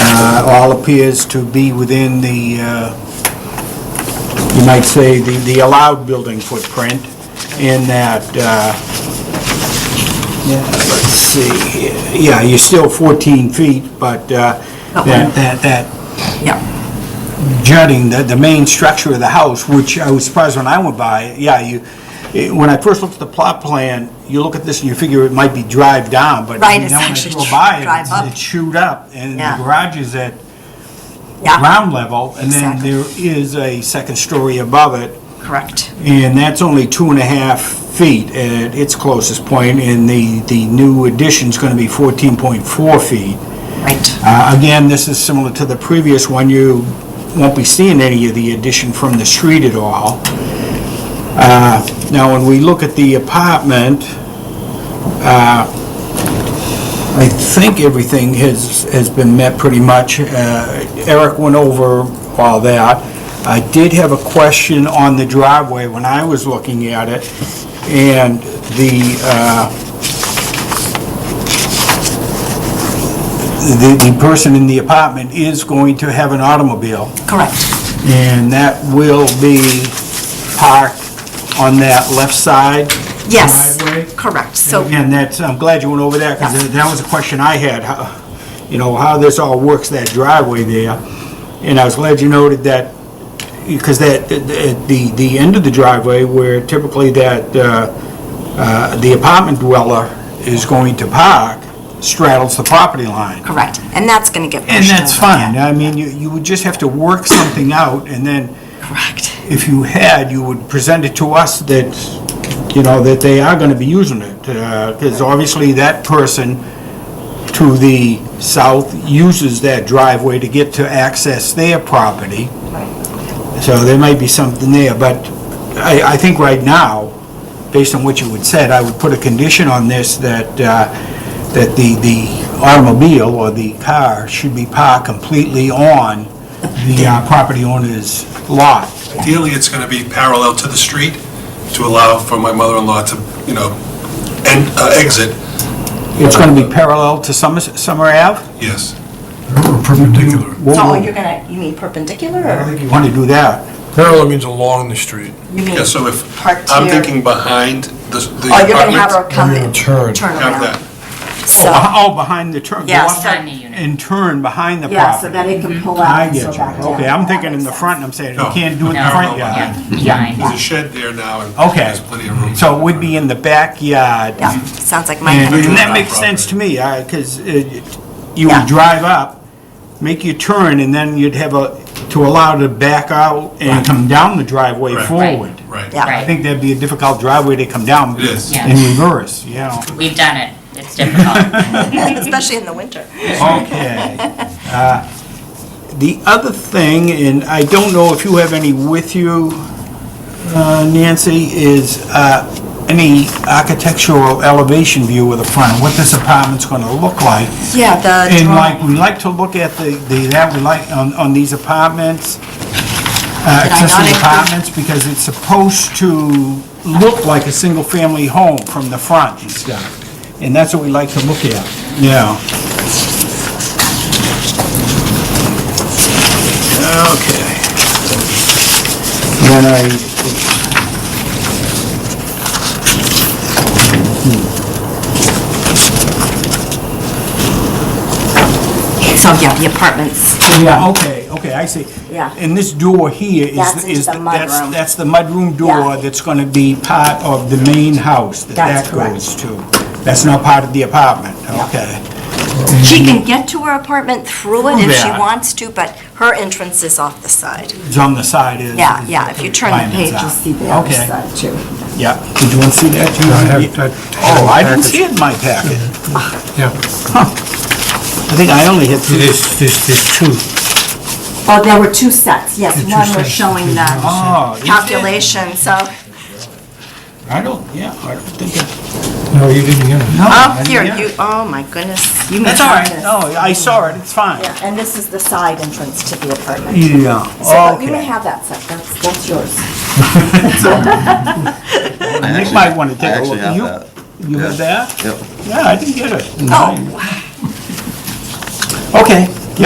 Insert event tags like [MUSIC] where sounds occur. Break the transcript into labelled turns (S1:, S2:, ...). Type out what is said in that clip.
S1: uh, all appears to be within the, uh, you might say, the the allowed building footprint in that, uh, yeah, let's see, yeah, you're still 14 feet, but uh,
S2: Not
S1: that
S2: one.
S1: that that
S2: Yeah,
S1: jutting, the, the main structure of the house, which I was surprised when I went by, yeah, you, eh, when I first looked at the plot plan, you look at this and you figure it might be drive down, but
S2: Right,
S1: now
S2: it's
S1: when I
S2: actually
S1: go by, it-
S2: drive up.
S1: It shoot up, and
S2: Yeah.
S1: the garage is at
S2: yeah,
S1: ground level, and then
S2: Exactly.
S1: there is a second story above it,
S2: correct.
S1: and that's only two and a half feet at its closest point, and the, the new addition's gonna be fourteen point four feet.
S2: Right,
S1: Uh, Again, this is similar to the previous one, you won't be seeing any of the addition from the street at all. Uh, Now, when we look at the apartment, uh, I think everything has, has been met pretty much. Uh, Eric went over all that. I did have a question on the driveway when I was looking at it, and the, uh, the the person in the apartment is going to have an automobile.
S2: correct,
S1: And that will be parked on that left side?
S2: yes,
S1: Driveway?
S2: correct, so,
S1: And that's, I'm glad you went over that, because that was a question I had, how, you know, how this all works, that driveway there. And I was glad you noted that, because that, that- the, the end of the driveway where typically that, uh, uh, the apartment dweller is going to park straddles the property line.
S2: correct, and that's gonna get pushed
S1: And that's
S2: over, yeah.
S1: fine. I mean, you, you would just have to work something out, and then
S2: Correct,
S1: if you had, you would present it to us that, you know, that they are gonna be using it. Because obviously that person to the south uses that driveway to get to access their property. So there might be something there, but I, I think right now, based on what you had said, I would put a condition on this that, uh, that the, the automobile or the car should be parked completely on the uh, property owner's lot.
S3: Ideally, it's going to be parallel to the street to allow for my mother-in-law to, you know, en- uh, exit,
S1: It's going to be parallel to Summer, Summer Ave?
S3: yes.
S4: Perpendicular.
S2: so you're gonna, you mean perpendicular, or
S1: You want to do that?
S4: Parallel means along the street.
S2: you mean?
S3: Yeah, so if,
S2: Part
S3: I'm
S2: two.
S3: thinking behind the the
S2: Oh, you're gonna have
S3: apartment,
S2: her come
S4: We're gonna
S2: in,
S4: turn.
S2: turn
S3: have
S2: around,
S3: that.
S1: Oh,
S2: so,
S1: beh- Oh, behind the turn. go
S2: Yeah,
S1: up
S2: behind
S5: the unit.
S1: And turn behind the property.
S2: yeah, so that it can pull out
S1: I
S2: and so
S1: get
S2: back
S1: you.
S2: down.
S1: Okay, I'm thinking
S2: That
S1: in the
S2: makes
S1: front,
S2: sense.
S1: and I'm saying, you
S3: No.
S1: can't do it in
S5: No,
S1: the front
S3: no,
S1: yard.
S5: Yeah,
S3: There's a
S5: behind.
S3: shed there now, and
S1: Okay.
S3: there's plenty of room.
S1: So it would be in the backyard.
S2: Yeah, sounds like my
S1: And [LAUGHS]
S2: head.
S1: and that
S3: Yeah.
S1: makes sense to me, because you
S2: Yeah.
S1: would drive up, make your turn, and then you'd have a, to allow to back out and come down the driveway
S3: Right.
S5: Right.
S1: forward.
S3: Right.
S2: Yeah.
S1: I think that'd be a difficult driveway to come down.
S3: It is.
S5: Yeah.
S1: In reverse, you know.
S5: We've done it. It's difficult.
S2: [LAUGHS] especially in the winter.
S1: Okay. Uh, The other thing, and I don't know if you have any with you, uh, Nancy, is uh, any architectural elevation view of the front, what this apartment's going to look like.
S2: Yeah, the
S1: And
S2: drawing,
S1: like, we like to look at the, the that we like on, on these apartments, uh,
S2: Did I not
S1: accessory
S2: include-
S1: apartments, because it's supposed to look like a single-family home from the front and stuff. And that's what we like to look at. Yeah. Okay. Then I...
S2: so yeah, the apartments,
S1: Yeah, Oh, okay, okay, I see.
S2: Yeah.
S1: And this door here is...
S2: That's into
S1: is
S2: the
S1: that's-
S2: mudroom.
S1: That's the mudroom door
S2: Yeah.
S1: that's gonna be part of the main house that
S2: That's
S1: that
S2: correct.
S1: goes to. That's not part of the apartment, okay?
S2: she can get to her apartment through it if she
S1: Mm-hmm. Yeah.
S2: wants to, but her entrance is off the side.
S1: It's on the side is...
S2: Yeah,
S1: is
S2: yeah,
S1: what
S2: if you turn the
S1: requirements
S2: page,
S1: are.
S2: you'll see the other
S1: Okay.
S2: side too.
S1: Yeah, did you want to see that? too? Oh, I didn't see it in my packet.
S4: Yeah,
S1: I think I only had two. [LAUGHS]
S4: there's, there's, there's two.
S2: Oh, there were two sets, yes,
S4: The two
S2: one was
S4: sets.
S2: showing the
S1: Oh, you did?
S2: calculation, so,
S1: Oh, I don't, yeah, I don't think it...
S4: No, you didn't get it.
S1: no, I
S2: oh,
S1: didn't
S2: here,
S1: get it.
S2: you, oh my goodness, you may
S1: That's all
S2: have
S1: right,
S2: this.
S1: no, I saw it, it's fine.
S2: Yeah, and this is the side entrance to the apartment.
S1: Yeah,
S2: So
S1: okay.
S2: you may have that set, that's, that's yours.
S1: Nick might want to
S6: I
S1: take a look.
S6: actually have
S1: You-
S6: that.
S1: You have
S6: Yeah.
S1: that?
S6: Yep.
S1: Yeah, I didn't get it.
S2: Oh,
S1: Okay,